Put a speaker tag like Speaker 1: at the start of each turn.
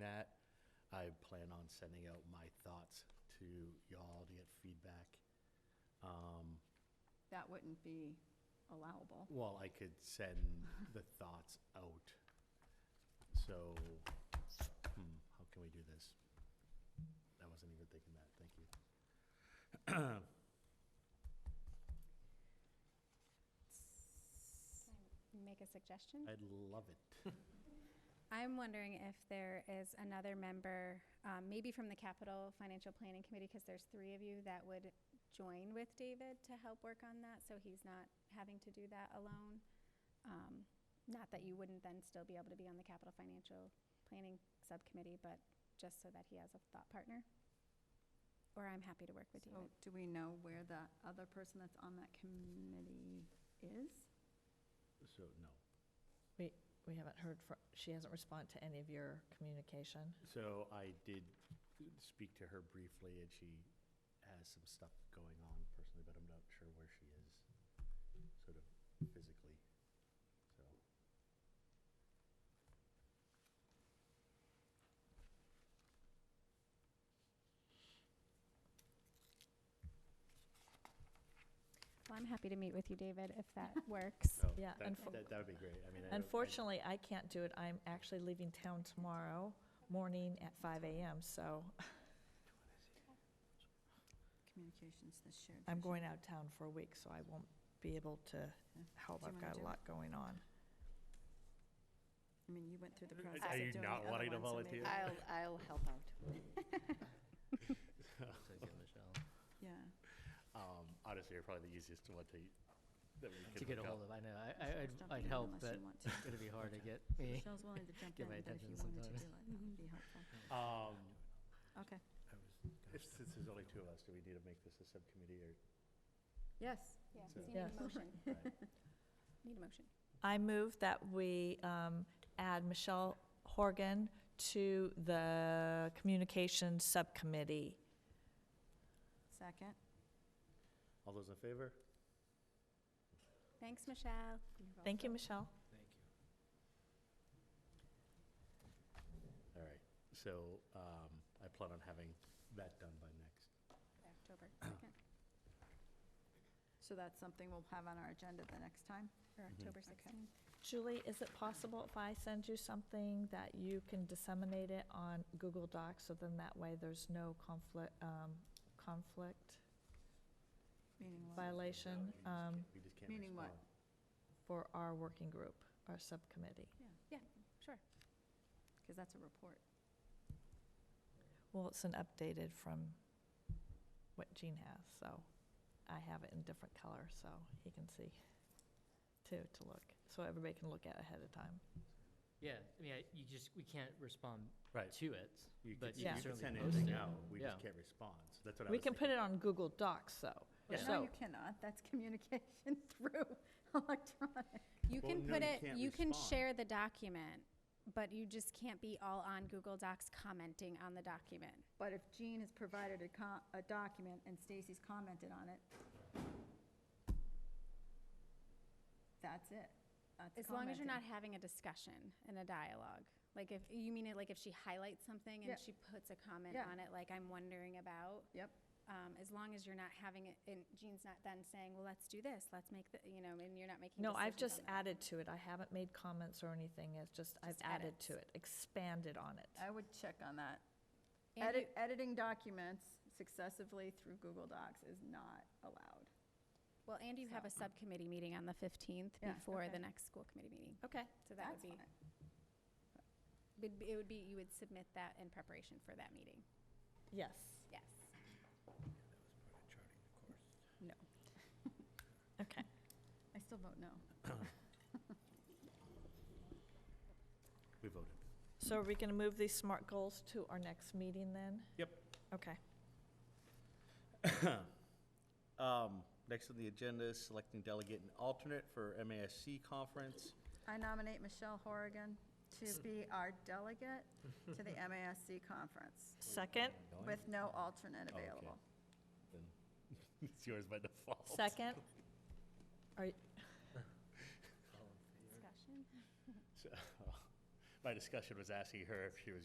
Speaker 1: that. I plan on sending out my thoughts to y'all to get feedback.
Speaker 2: That wouldn't be allowable.
Speaker 1: Well, I could send the thoughts out. So, hmm, how can we do this? I wasn't even thinking that, thank you.
Speaker 3: Can I Make a suggestion?
Speaker 1: I'd love it.
Speaker 3: I'm wondering if there is another member, um, maybe from the Capital Financial Planning Committee, because there's three of you that would join with David to help work on that, so he's not having to do that alone. Um, Not that you wouldn't then still be able to be on the Capital Financial Planning Subcommittee, but just so that he has a thought partner. Or I'm happy to work with
Speaker 2: So
Speaker 3: David.
Speaker 2: do we know where the other person that's on that committee is?
Speaker 1: So, no.
Speaker 4: We, we haven't heard from, she hasn't responded to any of your communication.
Speaker 1: So I did speak to her briefly, and she has some stuff going on personally, but I'm not sure where she is, sort of physically, so.
Speaker 3: Well, I'm happy to meet with you, David, if that works.
Speaker 1: so
Speaker 4: Yeah,
Speaker 1: Oh, that-
Speaker 4: unfor-
Speaker 1: That, that would be great, I mean. I don't- I-
Speaker 4: Unfortunately, I can't do it. I'm actually leaving town tomorrow morning at 5 AM, so
Speaker 2: Communications, the shared.
Speaker 4: I'm
Speaker 2: vision.
Speaker 4: going out of town for a week, so I won't be able to
Speaker 2: Yeah.
Speaker 4: help.
Speaker 2: Do you
Speaker 4: I've
Speaker 2: wanna
Speaker 4: got a
Speaker 2: do it?
Speaker 4: lot going on.
Speaker 2: I mean, you went through the
Speaker 1: Are
Speaker 2: process.
Speaker 1: you
Speaker 2: of doing
Speaker 1: not
Speaker 2: the other
Speaker 1: wanting to
Speaker 2: one, so maybe-
Speaker 1: volunteer?
Speaker 5: I'll, I'll help out.
Speaker 2: Yeah.
Speaker 1: Um, honestly, you're probably the easiest one to, that we could.
Speaker 6: to get a
Speaker 1: hook up.
Speaker 6: hold of. I know, I, I-
Speaker 2: Stop
Speaker 6: I'd, I'd
Speaker 2: you
Speaker 6: help,
Speaker 2: unless you
Speaker 6: but
Speaker 2: want to.
Speaker 6: it's gonna be hard to get me.
Speaker 2: Michelle's willing to jump
Speaker 6: Get
Speaker 2: in,
Speaker 6: my
Speaker 2: but if you
Speaker 6: attention
Speaker 2: wanted to do it,
Speaker 6: sometimes.
Speaker 2: that would be helpful.
Speaker 1: Um,
Speaker 2: Okay.
Speaker 1: if- since there's only two of us, do we need to make this a subcommittee or?
Speaker 2: Yes.
Speaker 3: Yeah,
Speaker 1: So-
Speaker 3: so you need a
Speaker 4: Yes.
Speaker 3: motion,
Speaker 1: Right.
Speaker 3: need a motion.
Speaker 4: I move that we um, add Michelle Horgan to the Communications Subcommittee.
Speaker 2: Second.
Speaker 1: All those in favor?
Speaker 3: Thanks, Michelle.
Speaker 4: Thank you, Michelle.
Speaker 1: All right, so, um, I plan on having that done by next.
Speaker 3: October 2nd,
Speaker 2: So that's something we'll have on our agenda the next time?
Speaker 3: or October
Speaker 2: Mm-hmm. Okay.
Speaker 3: 16th.
Speaker 4: Julie, is it possible if I send you something that you can disseminate it on Google Docs, so then that way there's no conflict, um, conflict
Speaker 2: Meaning what?
Speaker 1: We
Speaker 4: violation,
Speaker 1: just
Speaker 4: um,
Speaker 1: can't- we just can't
Speaker 2: Meaning what?
Speaker 1: respond.
Speaker 4: for our working group, our subcommittee?
Speaker 2: Yeah,
Speaker 3: Yeah, sure.
Speaker 2: because that's a report.
Speaker 4: Well, it's an updated from what Gene has, so I have it in different color, so he can see too, to look, so everybody can look at ahead of time.
Speaker 6: Yeah, I mean, I- you just, we can't respond
Speaker 1: Right.
Speaker 6: to it,
Speaker 1: You could,
Speaker 6: but
Speaker 1: you
Speaker 6: you can
Speaker 1: could send
Speaker 6: certainly
Speaker 1: anything
Speaker 6: post
Speaker 1: out,
Speaker 6: it.
Speaker 1: we
Speaker 6: Yeah.
Speaker 1: just can't respond, so that's what I
Speaker 4: We
Speaker 1: was
Speaker 4: can put
Speaker 1: thinking.
Speaker 4: it on Google Docs, though.
Speaker 6: Yeah.
Speaker 2: No,
Speaker 4: So-
Speaker 2: you cannot. That's communication through electronic.
Speaker 3: You
Speaker 1: Well,
Speaker 3: can
Speaker 1: no,
Speaker 3: put
Speaker 1: you
Speaker 3: it,
Speaker 1: can't
Speaker 3: you can
Speaker 1: respond.
Speaker 3: share the document, but you just can't be all on Google Docs commenting on the document.
Speaker 2: But if Jean has provided a co, a document and Stacy's commented on it, that's it. That's
Speaker 3: As long as you're not
Speaker 2: commenting.
Speaker 3: having a discussion and a dialogue. Like if, you mean it like if she highlights something
Speaker 2: Yeah.
Speaker 3: and she puts a comment
Speaker 2: Yeah.
Speaker 3: on it, like I'm wondering about?
Speaker 2: Yep.
Speaker 3: Um, As long as you're not having it, and Jean's not then saying, well, let's do this, let's make the, you know, and you're not making
Speaker 4: No, I've
Speaker 3: decisions
Speaker 4: just
Speaker 3: on that.
Speaker 4: added to it. I haven't made comments or anything. It's just, Oh, I've
Speaker 3: Just
Speaker 4: added
Speaker 3: edits.
Speaker 4: to it, expanded on it.
Speaker 2: I would check on that.
Speaker 3: And
Speaker 2: Edit, editing documents successively through Google Docs is not allowed.
Speaker 3: Well, and you have a subcommittee meeting on the 15th
Speaker 2: Yeah,
Speaker 3: before
Speaker 2: okay.
Speaker 3: the next school committee meeting.
Speaker 4: Okay.
Speaker 3: So that would
Speaker 2: That's
Speaker 3: be,
Speaker 2: fine.
Speaker 3: would be- it would be, you would submit that in preparation for that meeting.
Speaker 4: Yes,
Speaker 3: Yes.
Speaker 2: No,
Speaker 4: okay.
Speaker 2: I still vote no.
Speaker 1: We voted.
Speaker 4: So are we going to move these SMART goals to our next meeting then?
Speaker 1: Yep.
Speaker 4: Okay.
Speaker 1: Um, next on the agenda is selecting delegate and alternate for MASC conference.
Speaker 2: I nominate Michelle Horrigan to be our delegate to the MASC conference
Speaker 4: Second,
Speaker 2: with no alternate
Speaker 1: Oh, okay.
Speaker 2: available.
Speaker 1: Then It's yours by default.
Speaker 4: second. Are, y-
Speaker 3: Discussion?
Speaker 1: So, My discussion uh, was asking her if she was